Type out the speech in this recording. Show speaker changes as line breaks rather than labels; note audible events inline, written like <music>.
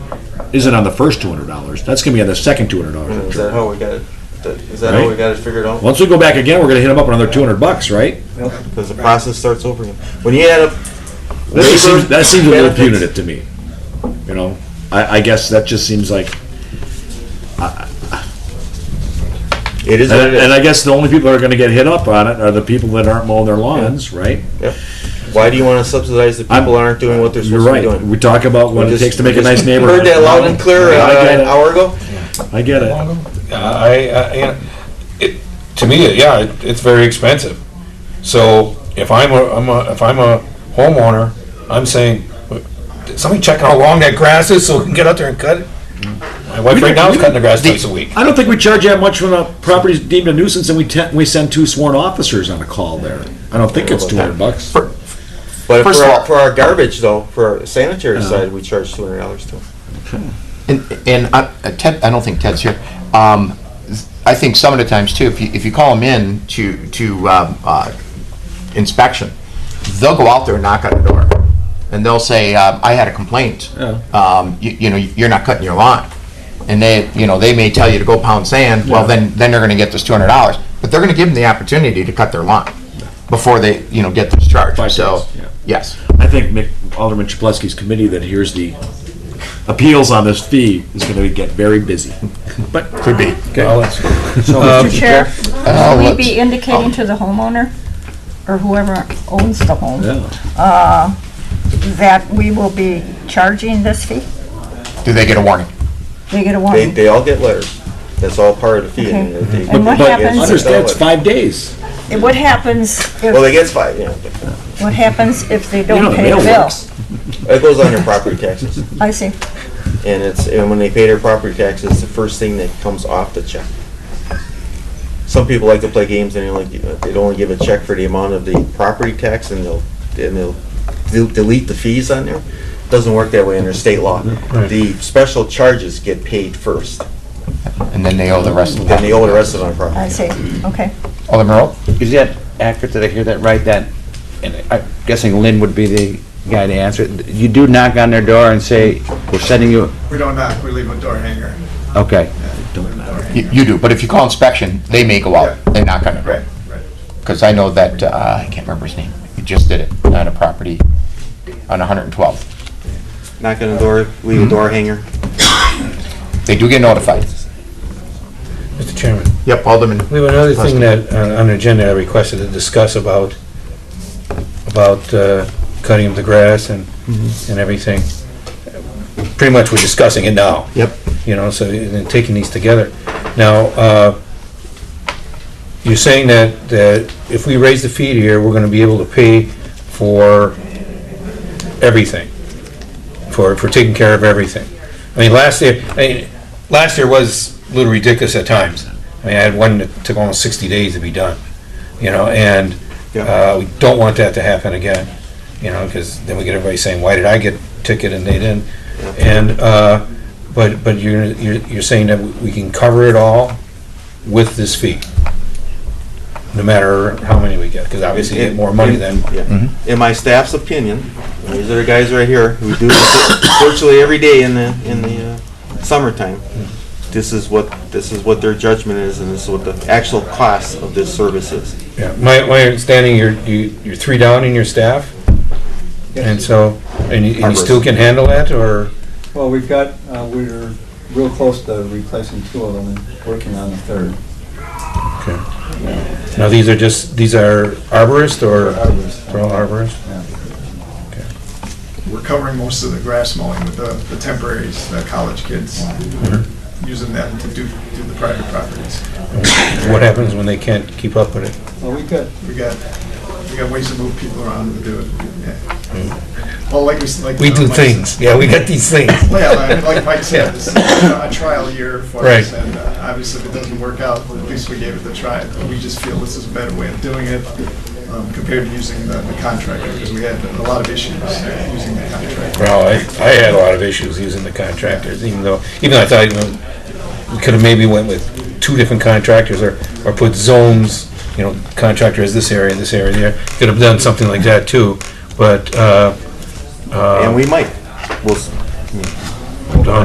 isn't on the first two hundred dollars. That's gonna be on the second two hundred
Is
dollars.
that how we got it? Is that how we
Right.
got it figured out?
Once we go back again, we're gonna hit them up another two hundred bucks, right?
Because the process starts over again. When you add up.
That seems, that seems a little
benefits-
punitive to me. You know, I, I guess that just seems like,
It is what
and,
it is.
and I guess the only people that are gonna get hit up on it are the people that aren't mowing their lawns, right?
Why do you want to subsidize the people that aren't doing what they're
You're
supposed to be
right.
doing?
We talk about what
We
it
just-
takes to make a
we
nice
just
neighborhood.
<laughs> Heard that loud and clear
I
uh,
get
an
it.
hour ago.
I get it.
I, I, you know, it, to me, it- yeah, it, it's very expensive. So if I'm a, I'm a, if I'm a homeowner, I'm saying, "Did somebody check how long that grass is so we can get out there and cut it? My wife right now is cutting the grass twice a week.
I don't think we charge that much when a property's deemed a nuisance and we ten, we send two sworn officers on a call there. I don't think it's two hundred bucks.
But
First
for
of
our,
all-
for our garbage though, for our
Uh-huh.
sanitary side, we charge two hundred dollars to 'em.
And, and I- uh, Ted, I don't think Ted's here. Um, I think some of the times too, if you, if you call them in to, to, um, uh, inspection, they'll go out there and knock on the door. And they'll say, uh, I had a complaint. Um, you, you know, you're not cutting your lawn. And they, you know, they may tell you to go pound sand, well, then, then they're gonna get this two hundred dollars. But they're gonna give them the opportunity to cut their lawn before they, you know, get this charge,
Five
so,
days, yeah.
yes.
I think Mick, Alderman Chapletsky's committee that hears the appeals on this fee is going to get very busy. But could be.
Well, it's-
Mr. Chair,
Uh,
will we
let's-
be indicating to the homeowner, or whoever owns the home,
Yeah.
that we will be charging this fee?
Do they get a warning?
They get a
They,
warning.
they all get letters. That's all part of the fee. and
Okay.
they-
And what
they get
happens-
sent out
Understand, it's
letters.
five days.
And What happens
Well, they
if,
get five, yeah.
what happens if they
know,
don't
the
pay the
mail
bill?
works.
It goes on your property taxes.
I see.
And it's, and when they pay their property taxes, the first thing that comes off the check. Some people like to play games and they only, they'd only give a check for the amount of the property tax and they'll, and they'll del- delete the fees on there. Doesn't work that way under state law. The special charges get paid first,
And then they owe the rest of
then
the,
they owe the rest of it on property.
I see. Okay.
Alderman Earl?
Is that accurate? Did I hear that right? That, and I'm guessing Lynn would be the guy to answer it. You do knock on their door and say, we're sending you,
We don't knock, we leave a door hanger.
okay.
Leave a door
You
hanger.
you do, but if you call inspection, they may go out,
Yeah.
they knock on it.
Right, right.
Because I know that, uh, I can't remember his name, he just did it on a property on 112.
Knock on the door, leave a door hanger.
They do get notified.
Mr. Chairman,
Yep, Alderman.
we have another thing
Plastic.
that, on on the agenda, I requested to discuss about, about uh, cutting of the grass and,
Mm-hmm.
and everything. Pretty much we're discussing it now.
Yep.
you know, so, and then taking these together. Now, uh, you're saying that, that if we raise the fee here, we're gonna be able to pay for everything, for, for taking care of everything. I mean, last year, I mean, last year was a little ridiculous at times. I mean, I had one that took almost sixty days to be done, you know, and, uh, we don't want that to happen again, you know, because then we get everybody saying, why did I get a ticket and they didn't? And, uh, but, but you're, you're, you're saying that we can cover it all with this fee? No matter how many we get, because obviously you get more money than,
Yeah. In my staff's opinion, these are the guys right here who do this virtually every day in the, in the uh, summertime. This is what, this is what their judgment is and this is what the actual cost of this service is.
yeah, my, my understanding, you're, you- you're three down in your staff? And so, and you, and you still can handle that, or,
Well, we've got, uh, we're real close to replacing two of them and working on the third.
now these are just, these are arborists or?
Arborists.
They're all arborists?
We're covering most of the grass mowing with the the temporaries, the college kids,
Mm-hmm.
using them to do, do the private properties.
What happens when they can't keep up with it?
Well, we could,
We got, we got ways to move people around to do it, yeah. Well, like we, s- like.
We
uh,
do
Mike
things, yeah, we got these things.
said- Well, yeah,
<laughs>
like- like Mike said, this is a trial year for
Right.
us, and uh, obviously if it doesn't work out, at least we gave it the try. We just feel this is a better way of doing it um, compared to using the the contractor, because we had a lot of issues using the contractor.
Well, I, I had a lot of issues using the contractors, even though, even though I thought, you know, we could have maybe went with two different contractors or, or put zones, you know, contractor is this area, this area, there. Could have done something like that too, but, uh,
And we might. We'll, s-